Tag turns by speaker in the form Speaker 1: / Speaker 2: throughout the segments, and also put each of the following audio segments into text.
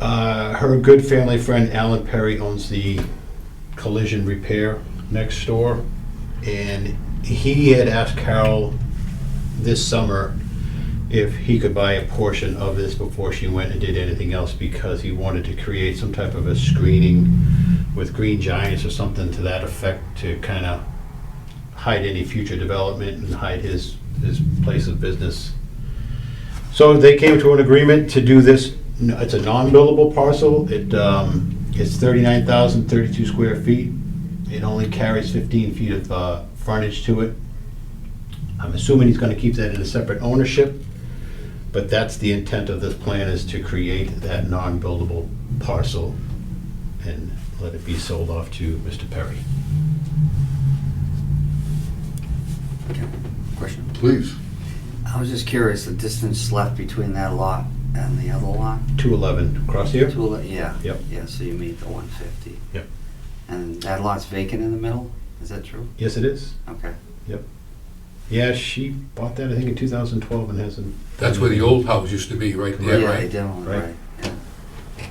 Speaker 1: Uh, Her good family friend Alan Perry owns the collision repair next door. And he had asked Carol this summer if he could buy a portion of this before she went and did anything else because he wanted to create some type of a screening with green giants or something to that effect to kind of hide any future development and hide his, his place of business. So they came to an agreement to do this, it's a non-buildable parcel, it, um, it's thirty-nine thousand thirty-two square feet. It only carries fifteen feet of, uh, frontage to it. I'm assuming he's gonna keep that in a separate ownership, but that's the intent of this plan, is to create that non-buildable parcel and let it be sold off to Mr. Perry.
Speaker 2: Question.
Speaker 3: Please.
Speaker 2: I was just curious, the distance left between that lot and the other lot?
Speaker 1: Two eleven, across here?
Speaker 2: Two li- Yeah.
Speaker 1: Yep.
Speaker 2: Yeah, so you made the one fifty.
Speaker 1: Yep.
Speaker 2: And that lot's vacant in the middle? Is that true?
Speaker 1: Yes, it is.
Speaker 2: Okay.
Speaker 1: Yeah, she bought that, I think, in two thousand twelve and hasn't.
Speaker 3: That's where the old house used to be, right there,
Speaker 2: they
Speaker 3: right?
Speaker 2: definitely,
Speaker 1: Right.
Speaker 2: right, yeah.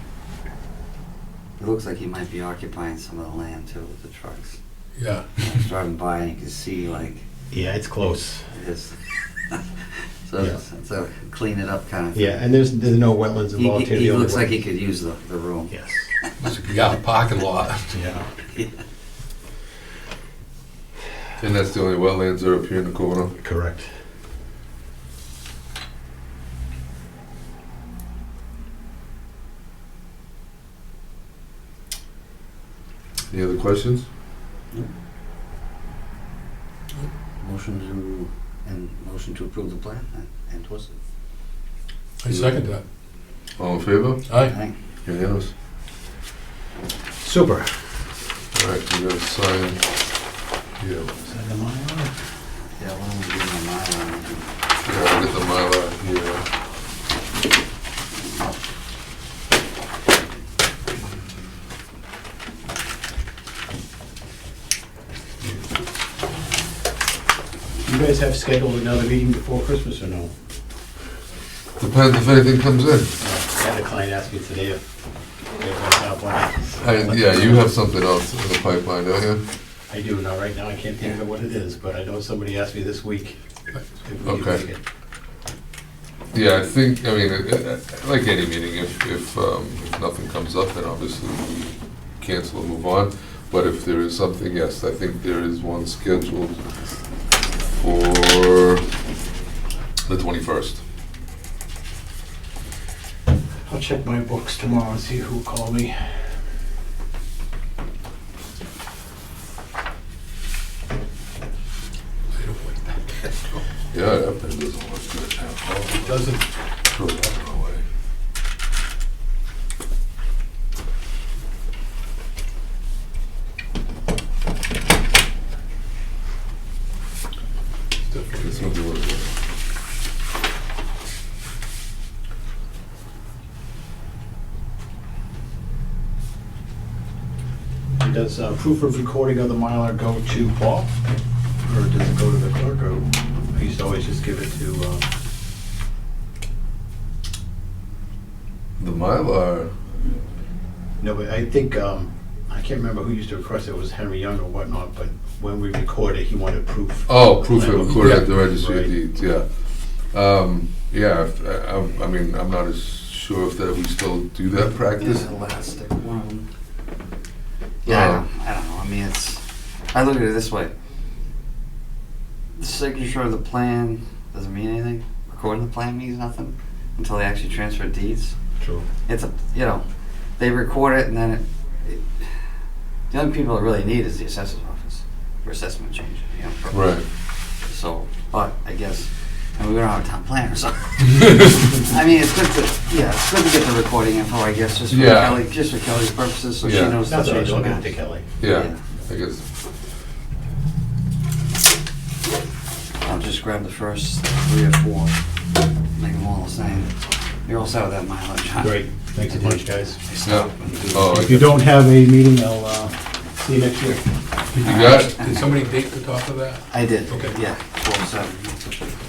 Speaker 2: It looks like he might be occupying some of the land too with the trucks.
Speaker 3: Yeah.
Speaker 2: I was driving by and you can see like
Speaker 1: Yeah, it's close.
Speaker 2: this. So it's it's a clean it up kind of. thing.
Speaker 1: Yeah, and there's, there's no wetlands
Speaker 2: He,
Speaker 1: involved
Speaker 2: he-
Speaker 1: here.
Speaker 2: he
Speaker 1: The only
Speaker 2: looks like
Speaker 1: wet-
Speaker 2: he could use the, the room.
Speaker 1: Yes,
Speaker 3: It's like, Yeah, parking lot.
Speaker 1: yeah.
Speaker 4: And that's the only wetlands that are up here in the corner.
Speaker 1: Correct.
Speaker 4: Any other questions?
Speaker 2: Motion to, and motion to approve the plan and- and twist it.
Speaker 3: I second that.
Speaker 4: All in favor?
Speaker 3: Aye.
Speaker 2: Aye.
Speaker 4: Unanimous.
Speaker 1: Super.
Speaker 4: All right, we gotta sign. Yeah,
Speaker 1: Is that the Mylar?
Speaker 2: Yeah, why don't we give him a mile and do-
Speaker 4: yeah, I'll get the Mylar here.
Speaker 1: You guys have scheduled another meeting before Christmas or no?
Speaker 4: Depends if anything comes in.
Speaker 1: I had a client ask me today if they have a pipeline.
Speaker 4: I, yeah, you have something else in the pipeline, don't you?
Speaker 1: I do, now, right now, I can't think of what it is, but I know somebody asked me this week. if we could
Speaker 4: Okay.
Speaker 1: make it.
Speaker 4: Yeah, I think, I mean, it- it- like any meeting, if, if, um, if nothing comes up, then obviously we cancel and move on. But if there is something, yes, I think there is one scheduled for the twenty-first.
Speaker 1: I'll check my books tomorrow and see who called me.
Speaker 4: Yeah, that pen doesn't look good. It
Speaker 1: Doesn't,
Speaker 4: Throw that one away. It's not the word.
Speaker 1: does uh, proof of recording of the Mylar go to Paul? Or does it go to the clerk, or I used to always just give it to, uh,
Speaker 4: The Mylar,
Speaker 1: No, but I think, um, I can't remember who used to request it, it was Henry Young or whatnot, but when we recorded, he wanted proof.
Speaker 4: oh, proof of recorded at the registry
Speaker 1: Right.
Speaker 4: of deeds, yeah. Um, yeah, if- I, I'm- I mean, I'm not as sure if that we still do that practice.
Speaker 2: This elastic one. Yeah, I don't, I don't know, I mean, it's, I look at it this way. The signature of the plan doesn't mean anything, recording the plan means nothing until they actually transfer deeds.
Speaker 1: True.
Speaker 2: It's a, you know, they record it and then it, it, the only people that really need is the assessor's office for assessment change, you know. for-
Speaker 4: Right.
Speaker 2: So, but I guess, and we don't have a town planner, so. I mean, it's good to, yeah, it's good to get the recording info, I guess, just for
Speaker 4: Yeah.
Speaker 2: Kelly, just for Kelly's purposes, so she
Speaker 4: Yeah.
Speaker 2: knows. the
Speaker 1: That's what I was
Speaker 2: change
Speaker 1: looking
Speaker 2: now.
Speaker 1: at to Kelly.
Speaker 4: Yeah, I guess.
Speaker 2: I'll just grab the first three or four, make them all the same. You're all set with that mileage, huh?
Speaker 1: Great, thanks a bunch, guys.
Speaker 2: I stopped
Speaker 4: Yeah.
Speaker 2: when you do-
Speaker 4: Oh, I-
Speaker 1: If you don't have a meeting, I'll, uh, see you next year.
Speaker 4: you got it?
Speaker 3: Did somebody date the top of that?
Speaker 2: I did,
Speaker 3: Okay.
Speaker 2: yeah, four oh seven.